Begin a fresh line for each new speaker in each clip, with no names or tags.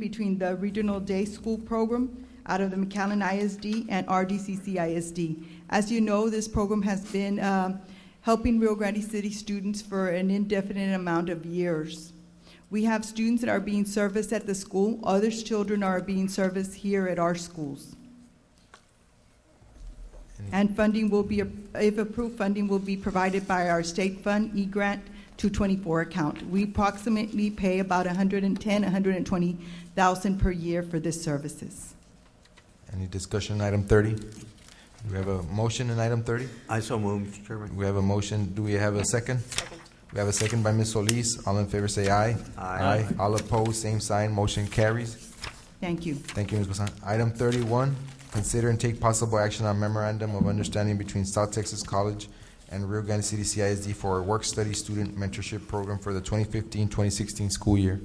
between the Regional Day School Program out of the McAllen ISD and RDCC ISD. As you know, this program has been um, helping Rio Grande City students for an indefinite amount of years. We have students that are being serviced at the school, others children are being serviced here at our schools. And funding will be, if approved, funding will be provided by our state fund, E-Grant 224 account. We approximately pay about 110, 120,000 per year for this services.
Any discussion on item 30? Do we have a motion in item 30?
I so move, Mr. Chairman.
We have a motion, do we have a second? We have a second by Ms. Solis, all in favor say aye.
Aye.
All opposed, same sign, motion carries.
Thank you.
Thank you, Ms. Basan. Item 31, consider and take possible action on memorandum of understanding between South Texas College and Rio Grande City CISD for a work-study student mentorship program for the 2015-2016 school year.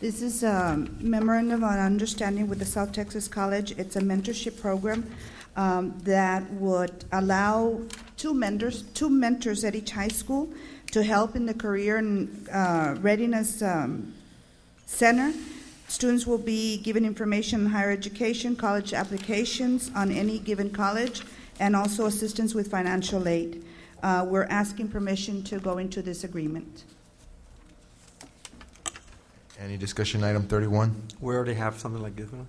This is a memorandum of understanding with the South Texas College. It's a mentorship program um, that would allow two mentors, two mentors at each high school to help in the career and uh, readiness um, center. Students will be given information on higher education, college applications on any given college, and also assistance with financial aid. Uh, We're asking permission to go into this agreement.
Any discussion on item 31?
We already have something like this one?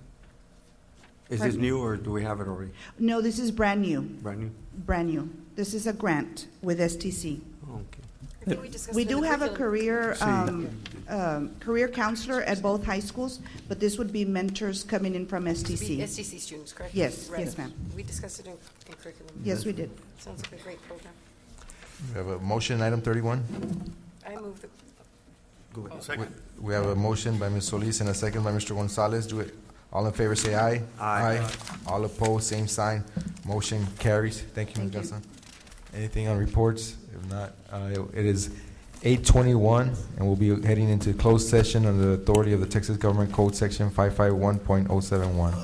Is this
Pardon?
new, or do we have it already?
No, this is brand new.
Brand new?
brand new. This is a grant with STC.
Oh, Okay.
Uh, We do have a career,
See.
um, um, career counselor at both high schools, but this would be mentors coming in from STC.
STC students, correct?
Yes,
Right.
yes, ma'am.
We discussed it in in curriculum.
Yes, we did.
Sounds like a great program.
We have a motion in item 31?
I move the,
Go ahead.
We- We have a motion by Ms. Solis and a second by Mr. Gonzalez. Do it, all in favor say aye.
Aye.
All opposed, same sign. Motion carries. Thank you, Ms.
Thank you.
Garza. Anything on reports? If not, uh, it is eight twenty-one, and we'll be heading into closed session under the authority of the Texas Government Code, section five-five-one point oh oh-seven-one.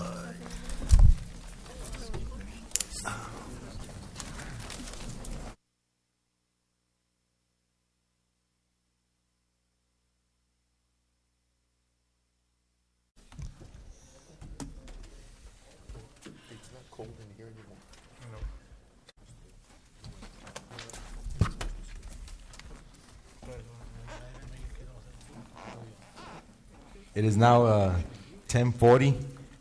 It is now uh, 10:40.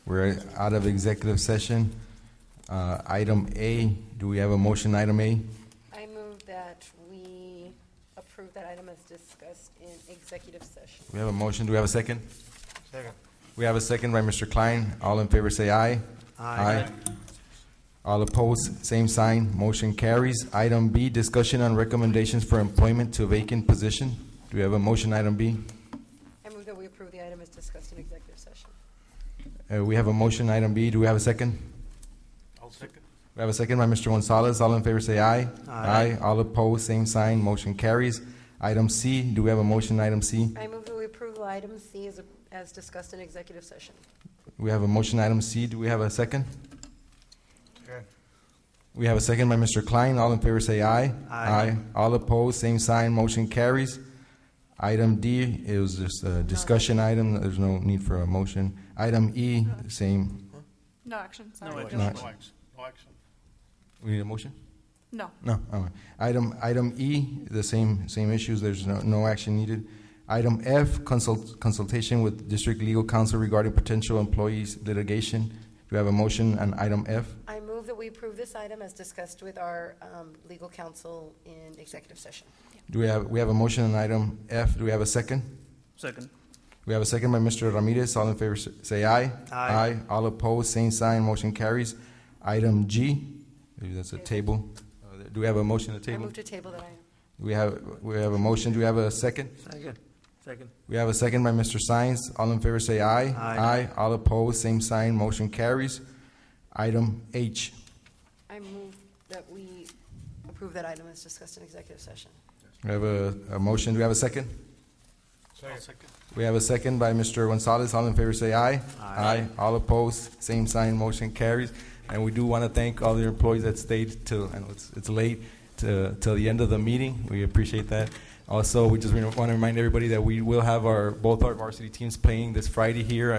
We're out of executive session. Uh, Item A, do we have a motion, item A?
I move that we approve that item as discussed in executive session.
We have a motion, do we have a second? Second. We have a second by Mr. Klein, all in favor say aye.
Aye.
All opposed, same sign, motion carries. Item B, discussion on recommendations for employment to vacant position. Do we have a motion, item B?
I move that we approve the item as discussed in executive session.
Uh, We have a motion, item B, do we have a second?
I'll second.
We have a second by Mr. Gonzalez. All in favor say aye.
Aye.
All opposed, same sign. Motion carries. Item C, do we have a motion, item C?
I move that we approve item C as, as discussed in executive session.
We have a motion, item C. Do we have a second? We have a second by Mr. Klein. All in favor say aye.
Aye.
All opposed, same sign. Motion carries. Item D, it was just a discussion item. There's no need for a motion. Item E, same.
No action,
No
sorry.
action, no action, no action.
We need a motion?
No.
No, all right. Item, item E, the same, same issues, there's no, no action needed. Item F, consult, consultation with district legal counsel regarding potential employees litigation. Do we have a motion on item F?
I move that we approve this item as discussed with our um, legal counsel in executive session.
Do we have, we have a motion on item F, do we have a second?
Second.
We have a second by Mr. Ramirez, all in favor s- say aye.
Aye.
All opposed, same sign, motion carries. Item G, maybe that's a table. Uh, Do we have a motion to
I
table?
move to table that item.
We have, we have a motion, do we have a second?
Second. Second.
We have a second by Mr. Sines. All in favor say aye.
Aye.
All opposed, same sign, motion carries. Item H.
I move that we approve that item as discussed in executive session.
We have a, a motion. Do we have a second?
I'll second.
We have a second by Mr. Gonzalez. All in favor say aye.
Aye.
All opposed, same sign, motion carries. And we do want to thank all the employees that stayed till, I know it's, it's late, to, till the end of the meeting. We appreciate that. Also, we just want to remind everybody that we will have our, both our varsity teams playing this Friday here